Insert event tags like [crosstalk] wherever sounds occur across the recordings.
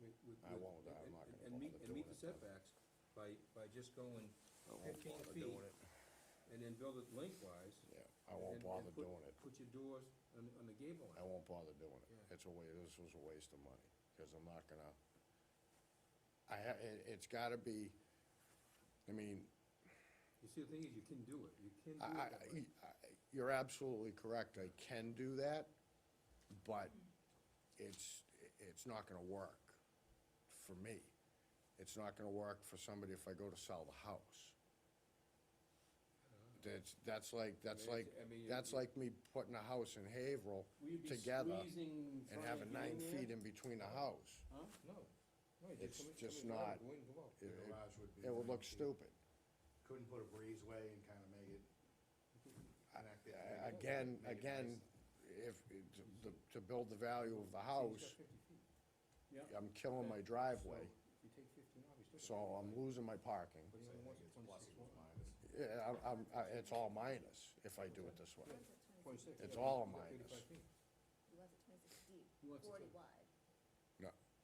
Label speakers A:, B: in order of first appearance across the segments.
A: with.
B: I
A: with-
B: won't, I'm
A: and-
B: not gonna
A: And meet,
B: bother
A: and meet
B: doing
A: the
B: it, I'm-
A: setbacks by, by just going
B: I won't
A: fifteen
B: bother
A: feet
B: doing it.
A: and then build it lengthwise.
B: Yeah, I
A: and-
B: won't
A: and- and
B: bother
A: put-
B: doing it.
A: Put your doors on, on the gable
B: I
A: end.
B: won't bother doing it.
A: Yeah.
B: It's a wa, this was a waste of money, because I'm not gonna, I ha, it, it's gotta be, I mean,
A: You see, the thing is, you can do it, you can
B: I,
A: do
B: I,
A: it that way.
B: I- I- you're absolutely correct, I can do that, but it's, it's not gonna work for me. It's not gonna work for somebody if I go to sell the house.
A: Uh-huh.
B: That's, that's like, that's
A: Yeah,
B: like,
A: I mean, you-
B: that's
A: you-
B: like me putting a house in Haverhill
A: We'd be
B: together
A: squeezing
B: and
A: trying to
B: having
A: get
B: nine
A: in there?
B: feet in between the house.
A: Huh? No, no, you
B: It's
A: just come in, come
B: just
A: in, drive,
B: not-
A: go in, go out.
B: It,
C: The
B: it-
C: garage would be.
B: it would look
C: 90.
B: stupid.
C: Couldn't put a breezeway and kinda make it. connect it,
B: A-
C: make it-
B: Again,
C: make it
B: again, if,
C: nice.
B: to, to build the value of the
A: See, he's
B: house,
A: got 50 feet.
B: I'm killing my driveway,
A: So, If you take fifteen off, he's
B: so
A: still. got
B: I'm losing my parking.
A: But he
C: So I
A: only
C: think
A: wants
C: it's
A: twenty-six one.
C: plus equals minus.
B: Yeah, I- I'm, I, it's all minus if I do it this way.
A: Twenty-six.
B: It's
A: Yeah,
B: all
A: he's got
B: minus.
A: 35 feet.
D: He wants it twenty-six deep,
E: He wants it
D: forty
E: to-
D: wide.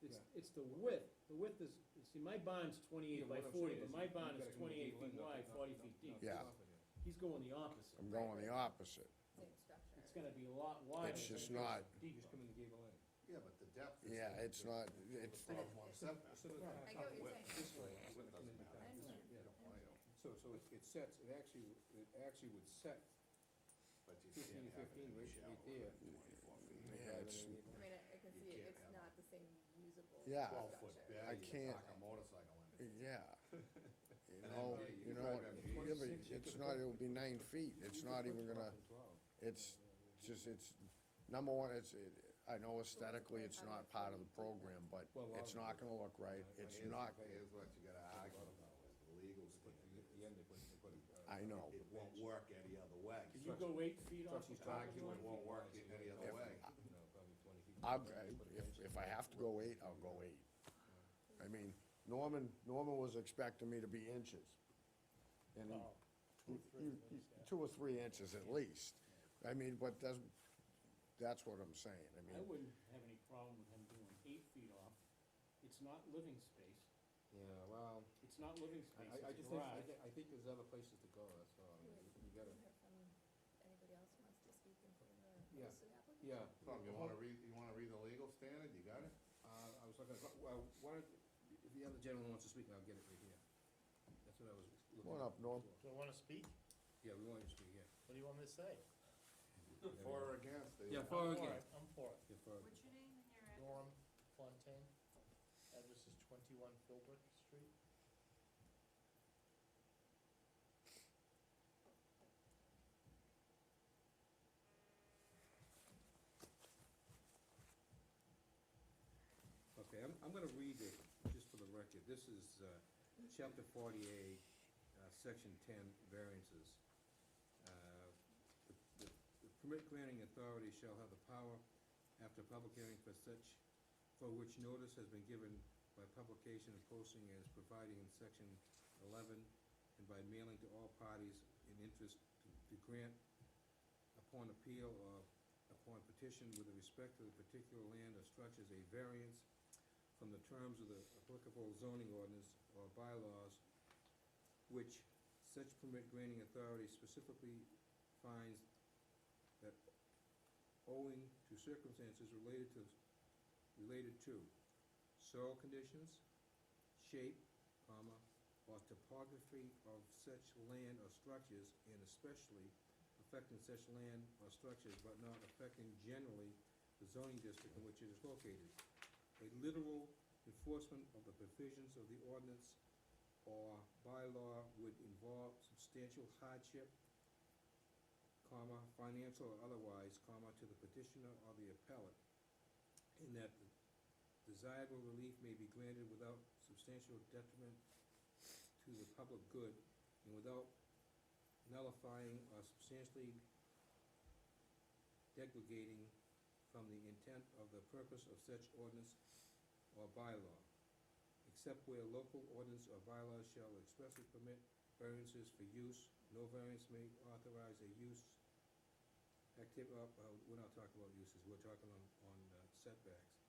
E: It's, it's the width, the width is, see, my bond's
A: Yeah,
E: twenty-eight by
A: what I'm
E: forty,
A: saying
E: but
A: is
E: my
A: you-
E: bond
A: you
E: is
A: gotta come in
E: twenty-eight feet
A: and
E: wide,
A: knock-
E: forty
A: knock-
E: feet
A: knock
E: deep.
A: it
B: Yeah.
A: off of there.
E: He's going the opposite.
B: I'm going the opposite.
D: Same structure.
E: It's gonna be a lot wider.
B: It's
E: than
B: just
E: it is
B: not-
A: You
E: deep.
A: just come in the gable end.
C: Yeah, but the depth is.
B: Yeah,
C: the-
B: it's not, it's,
C: The problem
A: [laughs]
C: on setback.
A: So the-
D: I get what you're saying.
A: This way.
C: Width
A: come in
C: doesn't
A: the
C: matter.
A: back.
D: I
A: Yeah.
D: understand.
C: You don't want it,
A: So, so it- it sets, it actually, w- it actually would set
C: But you
A: fifteen,
C: can't have it
A: fifteen right
C: any
A: right
C: shallower
A: there.
C: than 24 feet.
B: yeah, it's,
D: I mean, I I can
C: You
D: see it,
C: can't
D: it's
C: have
D: not the same usable
B: Yeah.
D: structure.
C: Twelve foot bed,
B: I
C: you
B: can't-
C: park a motorcycle in it.
B: yeah. You know, you know, what- yeah, but it's not, it'll be nine feet. It's not even gonna, it's just, it's, number one, it's, it- I know aesthetically, it's not part of the program, but it's not gonna look right. [laughs] It's
C: Here's-
B: not,
C: Here's what you gotta argue about, is the legal
A: But the-
C: standard.
A: the end, they put- they put, uh,
B: I know.
C: It won't work any other way.
E: Can you go eight feet off the
A: Trustee's
E: top of
C: Argue
E: one?
C: it won't work in any other
B: If-
C: way.
A: you know, probably 20 feet.
B: I'm,
A: Put a
B: if,
A: fence
B: if I have to go eight, I'll go eight. I mean, Norman, Norman was expecting me to be inches. And he- you- you- two or three inches at least. I mean, but that's, that's what I'm saying, I
E: I
B: mean,
E: wouldn't have any problem with him doing eight feet off. It's not living space.
A: Yeah, well,
E: It's not living
A: I,
E: space,
A: I- I
E: it's
A: just
E: a
A: think, I
E: garage.
A: thi- I think there's other places to go, that's all, I mean, you you gotta,
D: Hear from Anybody else who wants to speak in favor of
A: Yeah.
D: this applicant?
A: yeah.
C: Tom, you wanna read, you wanna read the legal standard, you got it?
A: Uh, I was looking, at- well, why don't, if the other gentleman wants to speak, I'll get it right here. That's what I was looking.
B: Come on up,
A: at
B: Norm.
A: before.
F: Do I wanna speak?
A: Yeah, we want you to speak, yeah.
F: What do you want me to say?
C: For or against? they-
A: Yeah, for or
F: I'm for
A: against?
F: it, I'm for it.
A: Yeah, for or
G: What's your name and your address?
F: Norm Fontaine, address is twenty-one Philbrook Street.
A: Okay, I'm, I'm gonna read it, just for the record, this is, uh, chapter forty-eight, uh, section ten, variances. Uh, The the- the permit granting authority shall have the power, after public hearing for such, for which notice has been given by publication and posting as provided in section eleven, and by mailing to all parties in interest to- to grant upon appeal or upon petition with respect to the particular land or structures a variance from the terms of the applicable zoning ordinance or bylaws, which such permit granting authority specifically finds that owing to circumstances related to, related to soil conditions, shape, comma, or topography of such land or structures, and especially affecting such land or structures, but not affecting generally the zoning district in which it is located. A literal enforcement of the provisions of the ordinance or bylaw would involve substantial hardship, comma, financial or otherwise, comma, to the petitioner or the appellate, in that the desirable relief may be granted without substantial detriment to the public good and without nullifying or substantially degrading from the intent of the purpose of such ordinance or bylaw, except where local ordinance or bylaw shall expressly permit variances for use, no variance may authorize a use activ- uh, uh, we're not talking about uses, we're talking on, on uh, setbacks.